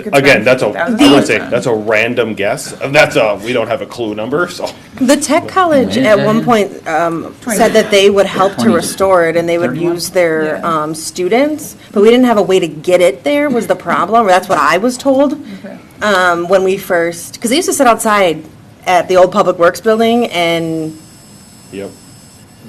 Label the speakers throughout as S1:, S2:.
S1: Again, that's a, I
S2: The-
S1: would say, that's a random guess. That's a, we don't have a clue number, so.
S2: The tech college at one point um, said that they would help to restore it and they would use their um, students, but we didn't have a way to get it there was the problem, or that's what I was told um, when we first, because they used to sit outside at the old Public Works building and
S1: Yep.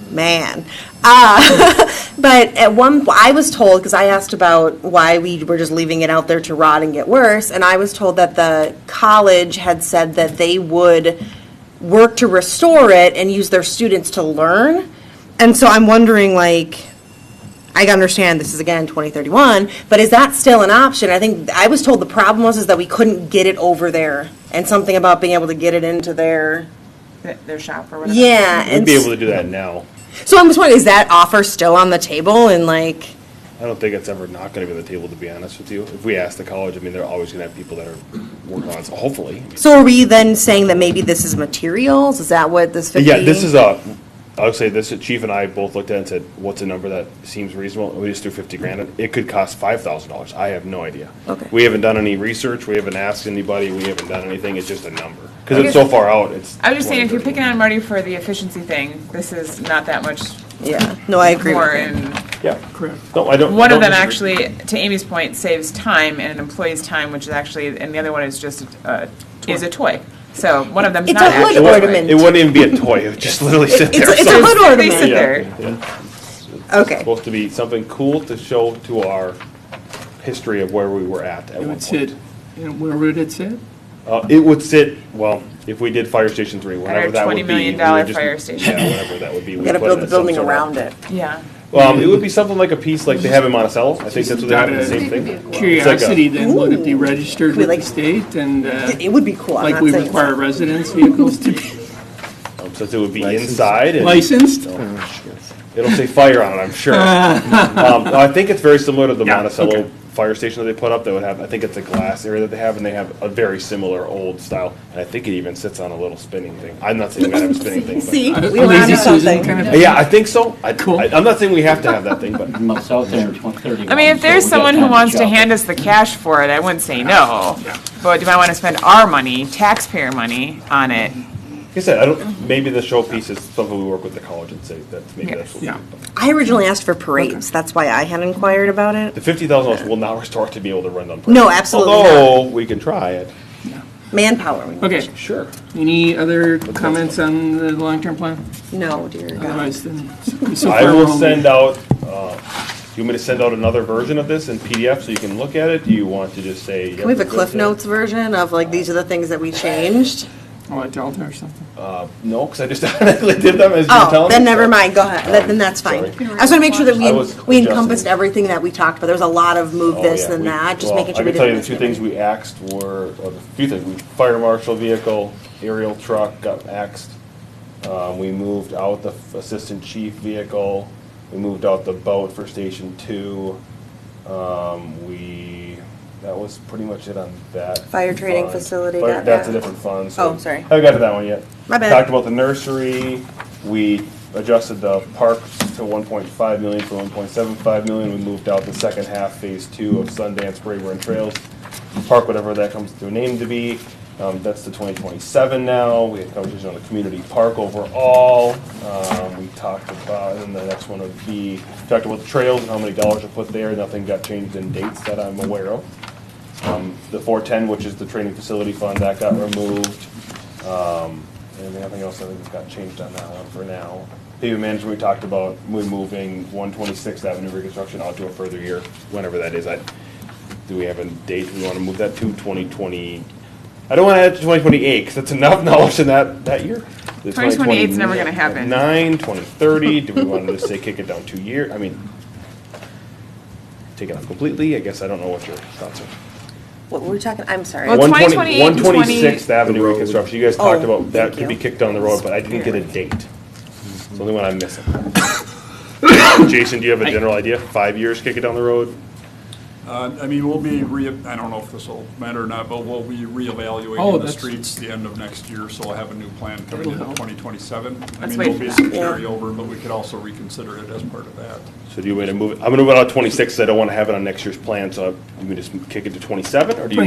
S2: man. Uh, but at one, I was told, because I asked about why we were just leaving it out there to rot and get worse, and I was told that the college had said that they would work to restore it and use their students to learn. And so I'm wondering, like, I understand this is again 2031, but is that still an option? I think, I was told the problem was is that we couldn't get it over there, and something about being able to get it into their,
S3: th- their shop or whatever.
S2: yeah.
S1: We'd
S2: and
S1: be able to do that now.
S2: so I'm just wondering, is that offer still on the table and like,
S1: I don't think it's ever not gonna be on the table, to be honest with you. If we ask the college, I mean, they're always gonna have people that are working on it, so hopefully.
S2: so are we then saying that maybe this is materials? Is that what this fifty?
S1: Uh, Yeah, this is a, I would say this, Chief and I both looked at it and said, what's a number that seems reasonable? We just threw fifty grand. It could cost five thousand dollars. I have no idea.
S2: Okay.
S1: We haven't done any research. We haven't asked anybody. We haven't done anything. It's just a number. Cause it's so far out, it's.
S3: I was just saying, if you're picking
S1: 20,
S3: on Marty for the efficiency thing, this is not that much
S2: Yeah, no, I agree
S3: more.
S2: with you.
S3: And
S1: 31. Yeah. Correct. No, I don't.
S3: one of
S1: don't
S3: them
S1: disagree.
S3: actually, to Amy's point, saves time and an employee's time, which is actually, and the other one is just, uh, is a toy. So one of them's
S2: It's
S3: not
S2: a hood
S3: actually.
S1: It wouldn't-
S2: ornament.
S1: It wouldn't even be a toy. It would just literally sit
S2: It's,
S1: there.
S2: it's a
S1: So-
S2: hood
S3: They sit
S2: ornament.
S3: there.
S2: Okay,
S1: Supposed to be something cool to show to our history of where we were at at
S4: It
S1: one
S4: would
S1: point.
S4: sit, and where would it sit?
S1: Uh, it would sit, well, if we did Fire Station Three, whatever
S3: our
S1: that would be.
S3: $20 million
S1: we would just-
S3: fire station.
S1: Yeah, whatever that would be.
S2: we gotta build the building around it.
S3: Yeah.
S1: Um, it would be something like a piece like they have in Monticello. I think that's what they have, the same thing.
S4: Curiosity, then, would it be registered
S2: Ooh.
S4: with the state and, uh,
S2: It would be cool, I'm
S4: like
S2: not
S4: we
S2: saying. it's
S4: require
S2: not.
S4: residence vehicles to be
S1: Um, Since it would be inside and
S4: licensed? Uh,
S1: it'll say fire on it, I'm sure. Um, I think it's very similar to the
S4: Yeah,
S1: Monticello
S4: okay.
S1: fire station that they put up that would have, I think it's a glass area that they have and they have a very similar old style. And I think it even sits on a little spinning thing. I'm not saying we're gonna have a spinning thing, but.
S2: See, we
S4: A
S2: learned
S4: lazy Susan
S2: something.
S4: kind of-
S1: Yeah, I think so. I, I- I'm not saying we have to have that thing, but
S5: It's out there in 2031.
S3: I mean, if there's
S5: so we
S3: someone
S5: got time
S3: who
S5: to
S3: wants to
S5: shop
S3: hand
S5: it.
S3: us the cash for it, I wouldn't say no. But do I want to spend our money, taxpayer money, on it?
S1: Like I said, I don't, maybe the showpiece is something we work with the college and say that maybe that's what we
S4: Yeah.
S1: do.
S2: I originally asked for parades, that's why I had inquired about
S1: The
S2: it.
S1: fifty thousand dollars will not restore it to be able to run on.
S2: No, absolutely not.
S1: Although, we can try it,
S2: Manpower. we-
S4: Okay,
S1: sure.
S4: any other comments on the long-term plan?
S2: No, dear God.
S4: Otherwise, then, so- so
S1: I
S4: far
S1: will
S4: we're only-
S1: send out, uh, you want me to send out another version of this in PDF so you can look at it? Do you want to just say?
S2: Can we have a Cliff Notes version of like, these are the things that we changed?
S4: Oh, a Delta or something?
S1: No, because I just automatically did them as you were telling me.
S2: Oh, then never
S1: so.
S2: mind, go ahead, Then- then that's fine. I
S1: Sorry.
S2: just want to make sure that
S1: I
S2: we,
S1: was
S2: we
S1: adjusting.
S2: encompassed everything that we talked about, there was a lot of move
S1: Oh,
S2: this
S1: yeah,
S2: and
S1: we-
S2: that, just
S1: well,
S2: making sure
S1: I
S2: we
S1: can tell you
S2: didn't.
S1: the two things we axed were, or the few things, we, fire marshal vehicle, aerial truck got axed. Um, we moved out the f- assistant chief vehicle, we moved out the boat for station two. Um, we, that was pretty much it on that.
S2: Fire training
S1: fund.
S2: facility,
S1: Fire-
S2: got
S1: That's a
S2: that.
S1: different fund, so.
S2: Oh, sorry.
S1: Haven't got to that one yet.
S2: My bad.
S1: Talked about the nursery, we adjusted the parks to one point five million from one point seven five million, we moved out the second half, phase two of Sundance, Braeburn Trails. Park, whatever that comes to a name to be, um, that's the twenty twenty-seven now, we had conversation on the community park overall. Um, we talked about, and then the next one would be, talked about the trails and how many dollars are put there, nothing got changed in dates that I'm aware of. Um, The 410, which is the training facility fund, that got removed. Um, And then nothing else, I think, got changed on that one for now. Pavement management, we talked about, we moving 126th Avenue reconstruction out to a further year, whenever that is. I- Do we have a date we want to move that to, 2020? I don't want to add to 2028, because that's enough knowledge in that, that year. The
S3: 2028 's never gonna happen.
S1: 9, 2030, do we want to just say kick it down two years? I mean, take it off completely, I guess, I don't know what your thoughts are.
S2: What were we talking, I'm sorry.
S3: Well, 2028
S1: One
S3: and 20
S1: twenty-sixth Avenue reconstruction, you guys talked
S2: Oh,
S1: about that
S2: thank
S1: could be
S2: you.
S1: kicked down the road, but I didn't get a date. It's the only one I'm missing. Jason, do you have a general idea, five years, kick it down the road?
S6: Uh, I mean, we'll be, re. I don't know if this will matter or not, but we'll be
S4: Oh,
S6: reevaluating the
S4: that's-
S6: streets the end of next year, so we'll have a new plan coming
S4: That'll
S6: into
S4: help.
S6: 2027. I
S3: Let's
S6: mean,
S3: wait
S6: there'll
S3: for
S6: be
S3: that.
S6: some
S2: Yeah.
S6: carryover, but we could also reconsider it as part of that.
S1: So do you want to move it, I'm gonna move it out twenty-six, I don't want to have it on next year's plan, so you can just kick it to twenty-seven, or do you?